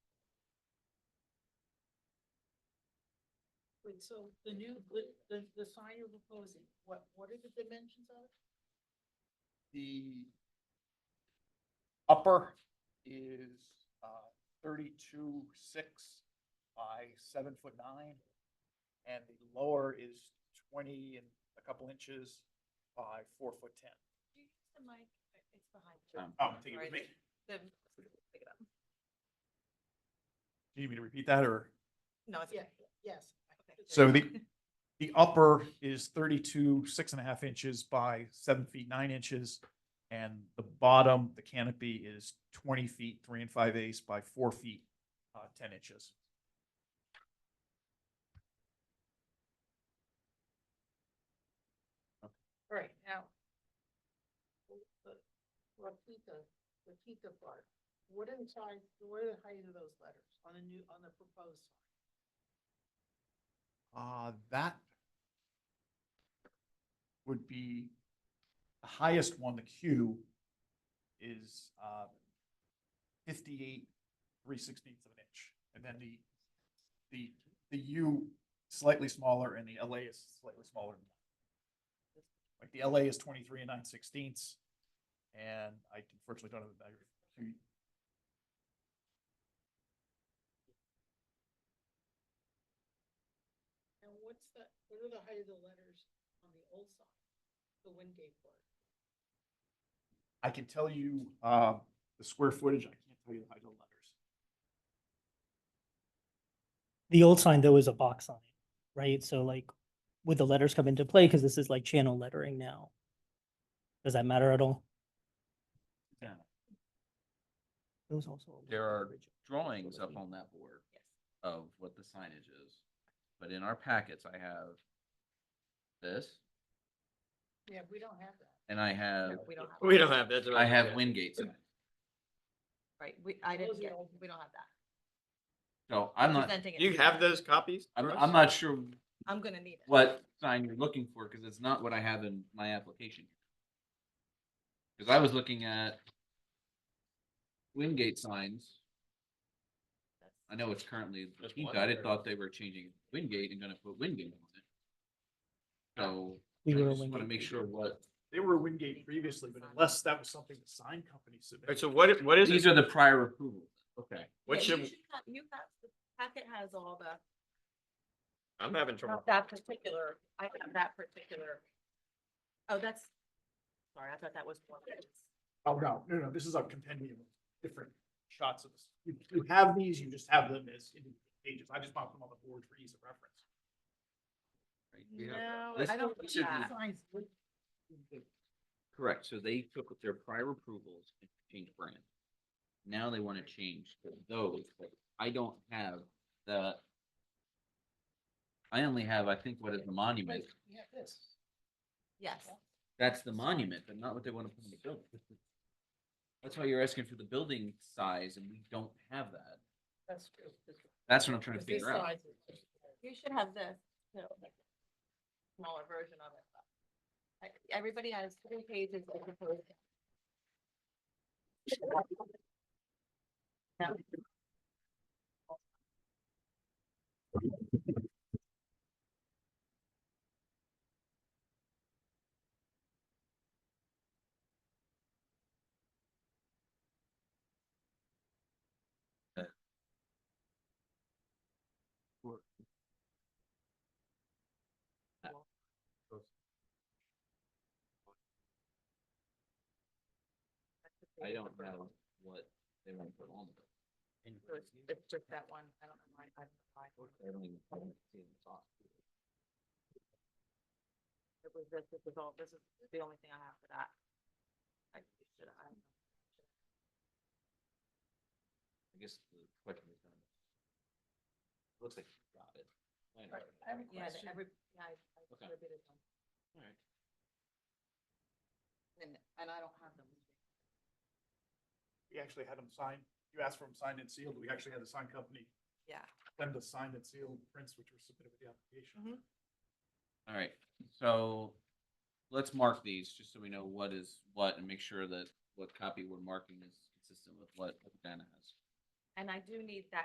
Wait, so the new, the, the, the sign you're proposing, what, what are the dimensions of it? The upper is uh, thirty-two six by seven foot nine. And the lower is twenty and a couple inches by four foot ten. you use the mic? It's behind Um, Oh, take it with me. Right. you. The- pick it up. Do you need me to repeat that or? No, it's. Yeah, okay. yes. Okay. So the, the upper is thirty-two, six and a half inches by seven feet, nine inches. And the bottom, the canopy is twenty feet, three and five eighths by four feet, uh, ten inches. All right, now. the- Repeat the, repeat the part. What inside, what are the height of those letters on the new, on the proposed? sign? Uh, that would be the highest one, the Q is, uh, fifty-eight, three sixteenths of an inch. And then the, the, the U slightly smaller and the LA is slightly smaller. than that. Like the LA is twenty-three and nine sixteenths. And I unfortunately don't have the value. of Q. And what's the, what are the height of the letters on the old sign? The Wingate part? I can tell you, uh, the square footage. I can't tell you the height of the letters. The old sign though is a box sign, right? So like, would the letters come into play? Because this is like channel lettering now. Does that matter at all? Yeah. It was also. a There letter are originally. drawings up on that board of what the signage is. But in our packets, I have this Yeah, we don't have that. and I have, No, We don't have. We that. don't have that. I have Wingate sign. Right, we, I Those didn't are get, all- we don't have that. So I'm not, Presenting it You to have us. those copies? I'm, for us? I'm not sure I'm gonna need it. what sign you're looking for because it's not what I have in my application. Because I was looking at Wingate signs. I know it's currently the Just Pinta. one I didn't or- thought they were changing Wingate and gonna put Wingate on it. So We I were a just wanna Wingate make sure what, They were a Wingate previously, but unless that was something the sign company Alright, so submitted. what, i- what is these it? are the prior approvals. Okay. What Yeah, you should, have- You have, the packet has all the, I'm having trouble. not that particular, I have that particular. Oh, that's, sorry, I thought that was one. Oh, no, no, no, this is a compendium of different shots of this. You, you have these, you just have them as individual pages. I just popped them on the board for ease of reference. No, Let's I don't go think to the- that. Signs with- Correct, so they took their prior approvals and changed brand. Now they wanna change to those, but I don't have the. I only have, I think, what is the monument, Wait, we have this. Yes, that's the monument, but not what they wanna put in the building. That's why you're asking for the building size and we don't have that, That's true. that's what I'm trying to Because this figure out. size is- you should have this, too. Smaller version of it. but- Like, everybody has three pages of proposed. No. I don't know what they wanna put on. the So building. It's it's just that one, I don't know why, I don't know why, I don't even- I don't see it in the top. it was this, this was all, this is the only thing I have for that. I should, I, I guess the question is. um, Looks like you got it. I know. Right, I have a Um, yeah, the question. every, yeah, I, I Okay. distributed them, Alright. and, and I don't have them. We actually had them signed, you asked for them signed and sealed. We actually had the sign company Yeah. send the signed and sealed prints which were submitted with the application. Alright, so let's mark these, just so we know what is what and make sure that what copy we're marking is consistent with what Dana has. And I do need that